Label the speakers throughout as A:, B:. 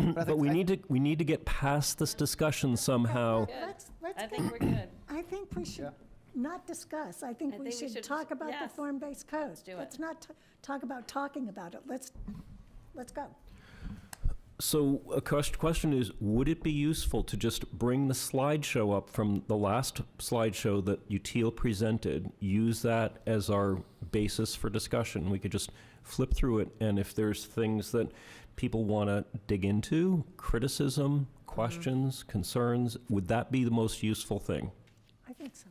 A: but I
B: But
A: think-
B: we
A: I-
B: need to, we need to get past this discussion somehow.
C: Good.
D: Let's, let's,
C: I
D: get-
C: think we're good.
D: I think we should not discuss. I think
C: I
D: we
C: think we
D: should
C: should-
D: talk about the
C: yes.
D: form-based code.
C: do it.
D: Let's not t- talk about talking about it. Let's, let's go.
B: So a quest- question is, would it be useful to just bring the slideshow up from the last slideshow that Util presented, use that as our basis for discussion? We could just flip through it, and if there's things that people want to dig into, criticism,
A: Mm-hmm.
B: questions, concerns, would that be the most useful thing?
D: I think so.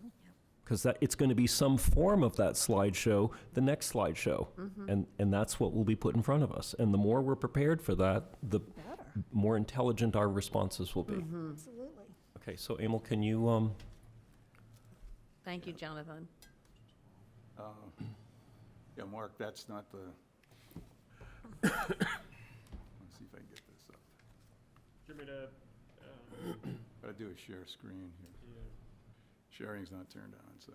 B: Because that, it's going to be some form of that slideshow, the next slideshow. And, and that's what will be put in front of us. And the more we're prepared for that, the
E: Mm-hmm.
D: Better,
B: more intelligent our responses will be.
D: absolutely.
B: Okay, so Emil, can you, um,
F: Thank you, Jonathan.
E: Yeah, Mark, that's not the, let's see if I can get this up.
G: Do you want me to, uh,
E: Gotta do a share screen here.
G: yeah.
E: Sharing's not turned on, so.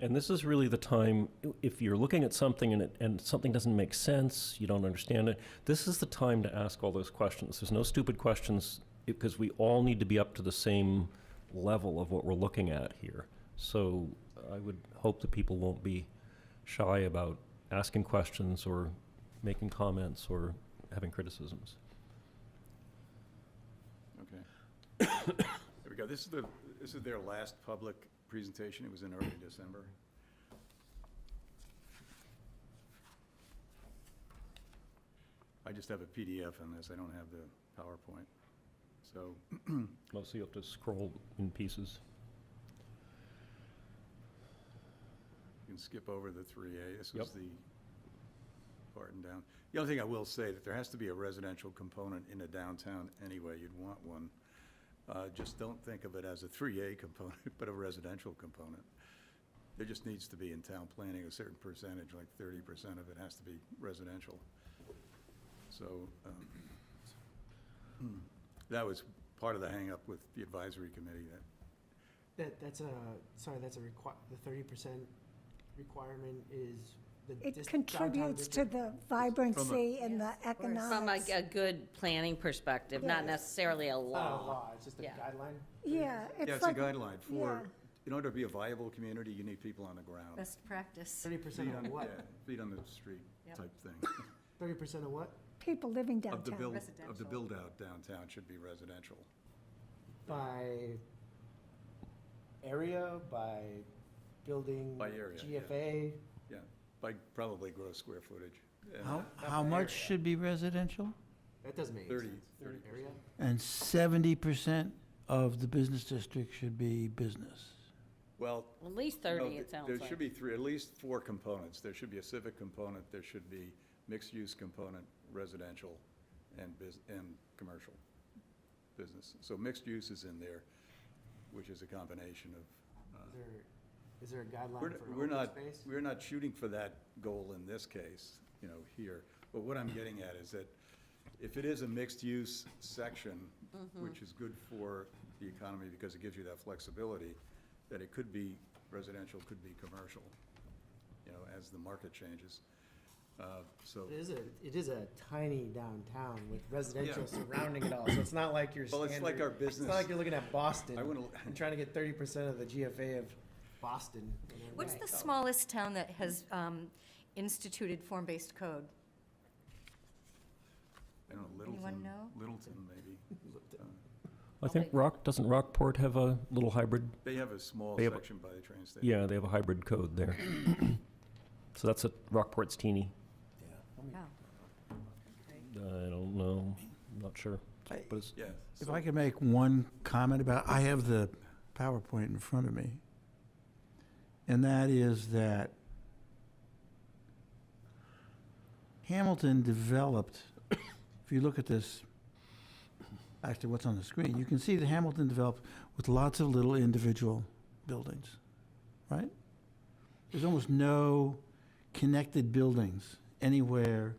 B: and this is really the time, i- if you're looking at something and it, and something doesn't make sense, you don't understand it, this is the time to ask all those questions. There's no stupid questions, because we all need to be up to the same level of what we're looking at here. So I would hope that people won't be shy about asking questions or making comments or having criticisms.
E: Okay. There we go. This is the, this is their last public presentation. It was in early December. I just have a PDF on this. I don't have the PowerPoint. So,
B: Mostly you have to scroll in pieces.
E: You can skip over the three A, this was
B: Yep.
E: the Barton down. The only thing I will say, that there has to be a residential component in a downtown anyway, you'd want one. Uh, just don't think of it as a three A component, but a residential component. There just needs to be in town planning a certain percentage, like thirty percent of it has to be residential. So, um, that was part of the hangup with the advisory committee, that
H: That, that's a, sorry, that's a require, the thirty percent requirement is the.
D: It
H: dis- downtown
D: contributes to
H: district-
D: the vibrancy and the
C: From a,
D: economics.
C: a good planning perspective, not
D: Yes.
C: necessarily a
H: It's Not a
C: law.
H: Oh, law, it's just a
C: Yeah.
H: guideline.
D: Yeah,
E: Yeah,
D: it's
E: it's a
D: like,
E: guideline for,
D: yeah.
E: in order to be a viable community, you need people on the ground.
F: Best practice.
H: Thirty percent
E: Feet on-
H: of what?
E: yeah, Feet on the street
F: Yep.
E: type thing.
H: Thirty percent of what?
D: people living
E: Of the
D: downtown.
E: build, of the
F: Residential.
E: build-out downtown should be residential.
H: By area, by building.
E: By area, yeah.
H: GFA,
E: Yeah, by probably gross square footage. And
I: How,
E: that-
I: how much should be residential?
H: that doesn't make any
E: 30,
H: sense.
E: 30%.
H: Area,
I: And seventy percent of the business district should be business.
E: Well,
C: At least
E: no,
C: thirty, it
E: th-
C: sounds
E: there should
C: like.
E: be three, at least four components. There should be a civic component, there should be mixed-use component, residential, and bus, and commercial business. So mixed use is in there, which is a combination of, uh,
H: is there, is there
E: We're,
H: a guideline
E: we're
H: for open
E: not,
H: space?
E: we're not shooting for that goal in this case, you know, here. But what I'm getting at is that if it is a mixed-use section, which is good for the economy because it gives you that flexibility, that it could be residential, could be commercial, you know, as the market changes. Uh, So,
H: It is a, it is a tiny downtown with residential surrounding it all, so it's not like you're
E: Well,
H: standard.
E: it's like our
H: It's not
E: business.
H: like you're looking at Boston
E: I wanna-
H: and trying to get thirty percent of the GFA of Boston. you know,
F: What's the
H: right.
F: smallest town that has um, instituted form-based code?
E: I don't know,
F: Anyone
E: Littleton,
F: know?
E: Littleton maybe. Uh,
B: I think
F: Okay.
B: Rock, doesn't Rockport have a little hybrid?
E: They have a small
B: They have a-
E: section by the train station.
B: Yeah, they have a hybrid code there. So that's a, Rockport's teeny.
F: Oh.
B: I don't know, not sure,
I: I-
B: but it's,
E: Yeah.
I: If
E: so-
I: I could make one comment about, I have the PowerPoint in front of me. And that is that Hamilton developed, if you look at this, actually what's on the screen, you can see that Hamilton developed with lots of little individual buildings, right? There's almost no connected buildings anywhere